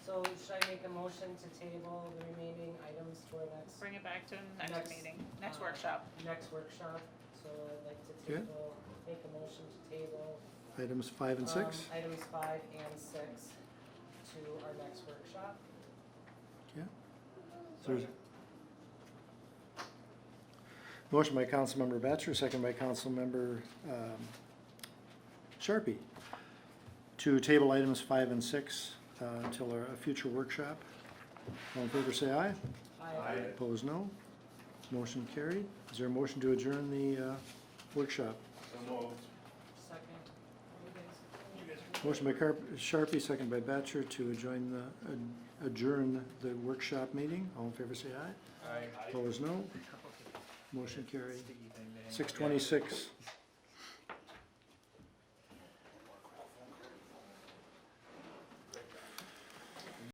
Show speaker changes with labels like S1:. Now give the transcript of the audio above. S1: should I make the motion to table the remaining items for next,
S2: Bring it back to
S1: Next,
S2: next meeting, next
S1: uh,
S2: workshop.
S1: next workshop? So I'd like to
S3: Okay.
S1: table, make a motion to table.
S3: Items five and
S1: um,
S3: six,
S1: Items five and six to our next workshop.
S3: okay. There's- Motion by Councilmember Batchor, second by Councilmember um, Sharpie, to table items five and six uh, until a a future workshop. All in favor, say aye.
S1: I,
S3: Opposed, no. Motion carried. Is there a motion to adjourn the uh, workshop?
S1: second.
S3: Motion by Carp- Sharpie, second by Batchor, to adjourn the, ad- adjourn the workshop meeting. All in favor, say aye. Aye. Opposed, no. Motion carried. Six twenty-six.